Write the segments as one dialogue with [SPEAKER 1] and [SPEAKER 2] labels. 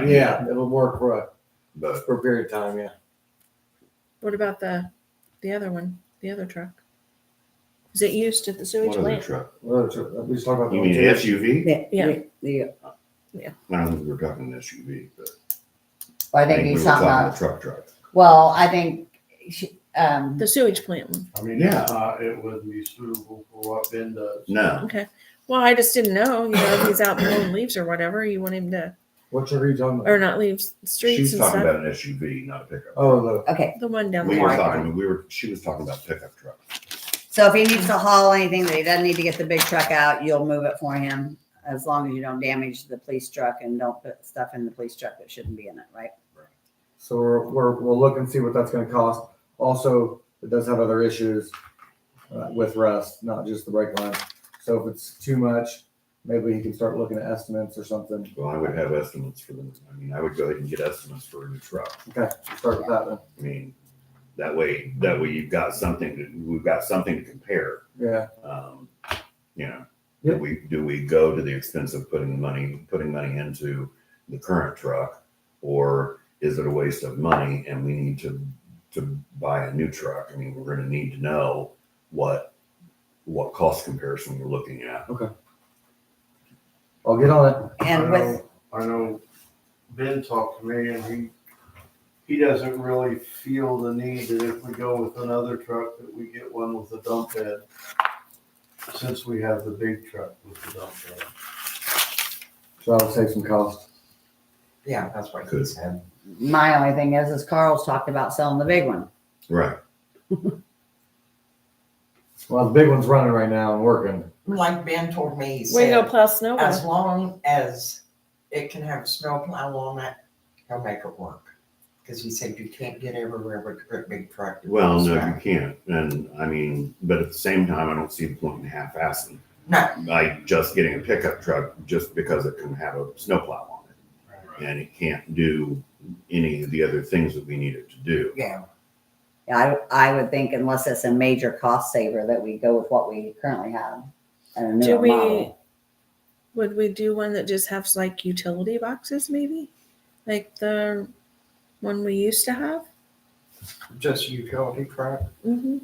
[SPEAKER 1] time.
[SPEAKER 2] Yeah, it'll work for a,
[SPEAKER 3] But
[SPEAKER 2] for a period of time, yeah.
[SPEAKER 1] What about the the other one, the other truck? Is it used at the sewage
[SPEAKER 3] what other
[SPEAKER 1] plant?
[SPEAKER 3] truck?
[SPEAKER 2] Well, it's- We just talked about. the
[SPEAKER 3] You mean an SUV?
[SPEAKER 4] The-
[SPEAKER 1] Yeah.
[SPEAKER 4] the- the-
[SPEAKER 3] I don't think we're talking an SUV, but
[SPEAKER 4] well, I
[SPEAKER 3] I
[SPEAKER 4] think
[SPEAKER 3] think we
[SPEAKER 4] he's
[SPEAKER 3] were
[SPEAKER 4] talking
[SPEAKER 3] talking a
[SPEAKER 4] about,
[SPEAKER 3] truck truck.
[SPEAKER 4] well, I think, she- um,
[SPEAKER 1] The sewage plant one.
[SPEAKER 5] I mean,
[SPEAKER 3] Yeah.
[SPEAKER 5] it's not, it wouldn't be suitable for what Ben does.
[SPEAKER 3] No,
[SPEAKER 1] Well, I just didn't know. You know, if he's out blowing leaves or whatever, you want him to,
[SPEAKER 2] What's your read on?
[SPEAKER 1] or not leaves streets
[SPEAKER 3] she's
[SPEAKER 1] and
[SPEAKER 3] talking
[SPEAKER 1] stuff.
[SPEAKER 3] about an SUV, not a pickup.
[SPEAKER 2] Oh, the,
[SPEAKER 4] okay,
[SPEAKER 1] the one down
[SPEAKER 3] We
[SPEAKER 1] there.
[SPEAKER 3] were
[SPEAKER 4] Right.
[SPEAKER 3] talking, we were, she was talking about pickup truck.
[SPEAKER 4] so if he needs to haul anything that he doesn't need to get the big truck out, you'll move it for him. As long as you don't damage the police truck and don't put stuff in the police truck that shouldn't be in it, right?
[SPEAKER 2] so we're, we're, we'll look and see what that's gonna cost. Also, it does have other issues uh, with rust, not just the brake line. So if it's too much, maybe you can start looking at estimates or something.
[SPEAKER 3] Well, I would have estimates for them. I mean, I would go ahead and get estimates for a new truck.
[SPEAKER 2] Start with that one.
[SPEAKER 3] I mean, that way, that way you've got something, to we've got something to compare.
[SPEAKER 2] Yeah,
[SPEAKER 3] Um, You know,
[SPEAKER 2] Yeah.
[SPEAKER 3] do we, do we go to the expense of putting money, putting money into the current truck? Or is it a waste of money and we need to, to buy a new truck? I mean, we're gonna need to know what, what cost comparison we're looking at.
[SPEAKER 2] I'll get on it.
[SPEAKER 4] And
[SPEAKER 5] I
[SPEAKER 4] with,
[SPEAKER 5] know- I know Ben talked to me and he, he doesn't really feel the need that if we go with another truck, that we get one with a dump head. Since we have the big truck with the dump head.
[SPEAKER 2] So that'll save some cost.
[SPEAKER 6] Yeah, that's what he
[SPEAKER 3] Good.
[SPEAKER 6] said.
[SPEAKER 4] my only thing is, is Carl's talked about selling the big one.
[SPEAKER 3] Right.
[SPEAKER 2] Well, the big one's running right now and working.
[SPEAKER 6] Like Ben told me, he
[SPEAKER 1] Way to go
[SPEAKER 6] said,
[SPEAKER 1] plow snow. with.
[SPEAKER 6] as long as it can have a snow plow on it, he'll make it work. Cause he said you can't get everywhere with a big truck.
[SPEAKER 3] Well, no,
[SPEAKER 6] So,
[SPEAKER 3] you can't. And I mean, but at the same time, I don't see the point in half-assing.
[SPEAKER 6] No,
[SPEAKER 3] like just getting a pickup truck just because it can have a snowplow on it. And it can't do any of the other things that we need it to do.
[SPEAKER 6] yeah,
[SPEAKER 4] Yeah, I, I would think unless it's a major cost saver that we go with what we currently have. And a
[SPEAKER 1] Do
[SPEAKER 4] newer
[SPEAKER 1] we,
[SPEAKER 4] model.
[SPEAKER 1] would we do one that just has like utility boxes maybe? Like the one we used to have?
[SPEAKER 6] just utility truck.
[SPEAKER 1] Mm-hmm.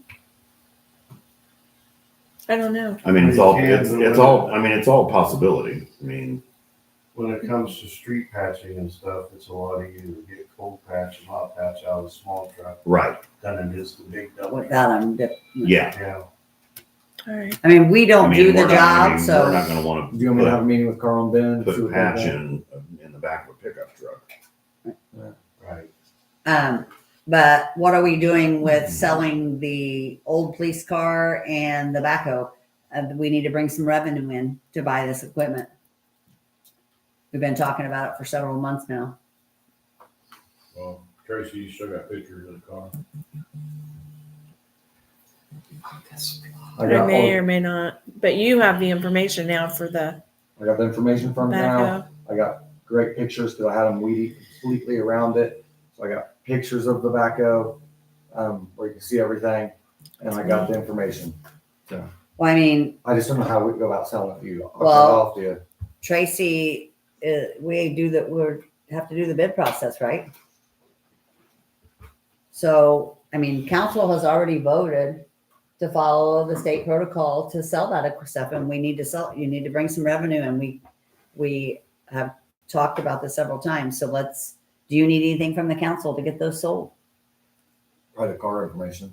[SPEAKER 1] I don't know.
[SPEAKER 3] I mean, it's all, it's, it's all, I mean, it's all possibility. I mean,
[SPEAKER 5] When it comes to street patching and stuff, it's a lot easier to get cold patch and hot patch out of a small truck
[SPEAKER 3] right,
[SPEAKER 5] than it is the big dump. head.
[SPEAKER 4] Without them,
[SPEAKER 3] yeah.
[SPEAKER 5] Yeah,
[SPEAKER 1] All right.
[SPEAKER 4] I mean, we
[SPEAKER 3] I
[SPEAKER 4] don't
[SPEAKER 3] mean,
[SPEAKER 4] do the
[SPEAKER 3] we're not- I
[SPEAKER 4] job,
[SPEAKER 3] mean,
[SPEAKER 4] so.
[SPEAKER 3] We're not gonna wanna
[SPEAKER 2] Do you want me to have
[SPEAKER 3] put-
[SPEAKER 2] a meeting with Carl and Ben? and
[SPEAKER 3] put,
[SPEAKER 2] see what they
[SPEAKER 3] patch
[SPEAKER 2] think?
[SPEAKER 3] in, in the back of a pickup truck.
[SPEAKER 5] right.
[SPEAKER 4] Um, but what are we doing with selling the old police car and the backhoe? Uh, we need to bring some revenue in to buy this equipment. We've been talking about it for several months now.
[SPEAKER 7] Well, Tracy, you still got pictures of the car?
[SPEAKER 6] That's-
[SPEAKER 2] I
[SPEAKER 1] I
[SPEAKER 2] got,
[SPEAKER 1] may
[SPEAKER 2] all-
[SPEAKER 1] or may not, but you have the information now for the
[SPEAKER 2] I got the information from now.
[SPEAKER 1] backhoe.
[SPEAKER 2] I got great pictures because I had them weedy completely around it. So I got pictures of the backhoe, um, where you can see everything. And I got the information.
[SPEAKER 4] Well, I mean,
[SPEAKER 2] I just don't know how we go about selling it to you. I'll cut it
[SPEAKER 4] Well-
[SPEAKER 2] off to you.
[SPEAKER 4] Tracy, uh, we do that, we have to do the bid process, right? So, I mean, council has already voted to follow the state protocol to sell that stuff and we need to sell, you need to bring some revenue and we, we have talked about this several times. So let's, do you need anything from the council to get those sold?
[SPEAKER 2] Probably the car information.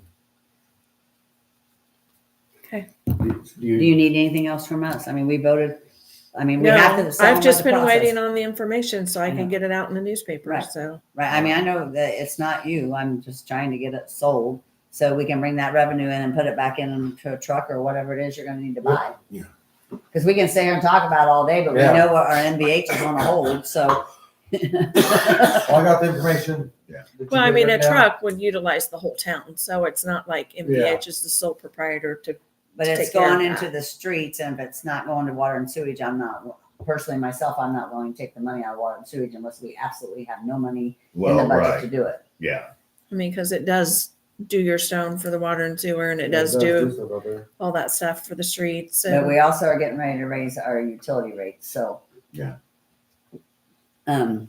[SPEAKER 1] Okay.
[SPEAKER 2] Do do
[SPEAKER 4] Do
[SPEAKER 2] you,
[SPEAKER 4] you need anything else from us? I mean, we voted, I mean, we
[SPEAKER 1] No,
[SPEAKER 4] have to. sell
[SPEAKER 1] I've
[SPEAKER 4] them
[SPEAKER 1] just
[SPEAKER 4] by the
[SPEAKER 1] been
[SPEAKER 4] process.
[SPEAKER 1] waiting on the information so I
[SPEAKER 4] Yeah.
[SPEAKER 1] can get it out in the newspaper,
[SPEAKER 4] Right.
[SPEAKER 1] so.
[SPEAKER 4] Right.
[SPEAKER 3] Um,
[SPEAKER 4] I mean, I know that it's not you. I'm just trying to get it sold so we can bring that revenue in and put it back into a truck or whatever it is you're going to need to buy.
[SPEAKER 3] Yeah.
[SPEAKER 4] Because we can sit here and talk about it all day, but
[SPEAKER 2] Yeah.
[SPEAKER 4] we know what our NVH is on to hold. So,
[SPEAKER 2] well, I got the information.
[SPEAKER 3] Yeah.
[SPEAKER 2] that you
[SPEAKER 1] Well, I
[SPEAKER 2] gave
[SPEAKER 1] mean,
[SPEAKER 2] right
[SPEAKER 1] a
[SPEAKER 2] now.
[SPEAKER 1] truck would utilize the whole town, so it's not like MVH is the sole proprietor to,
[SPEAKER 4] but
[SPEAKER 1] To
[SPEAKER 4] it's
[SPEAKER 1] take care of
[SPEAKER 4] going into
[SPEAKER 1] that.
[SPEAKER 4] the streets, and if it's not going to water and sewage, I'm not personally myself. I'm not willing to take the money out of water and sewage unless we absolutely have no money in
[SPEAKER 3] Well,
[SPEAKER 4] the budget to
[SPEAKER 3] right,
[SPEAKER 4] do it.
[SPEAKER 3] yeah.
[SPEAKER 1] I mean, because it does do your stone for the water and sewer and it
[SPEAKER 2] Yeah,
[SPEAKER 1] does do
[SPEAKER 2] stuff out there.
[SPEAKER 1] all that stuff for the streets
[SPEAKER 4] But
[SPEAKER 1] and
[SPEAKER 4] we also are getting ready to raise our utility rates. So,
[SPEAKER 3] Yeah.
[SPEAKER 4] Um,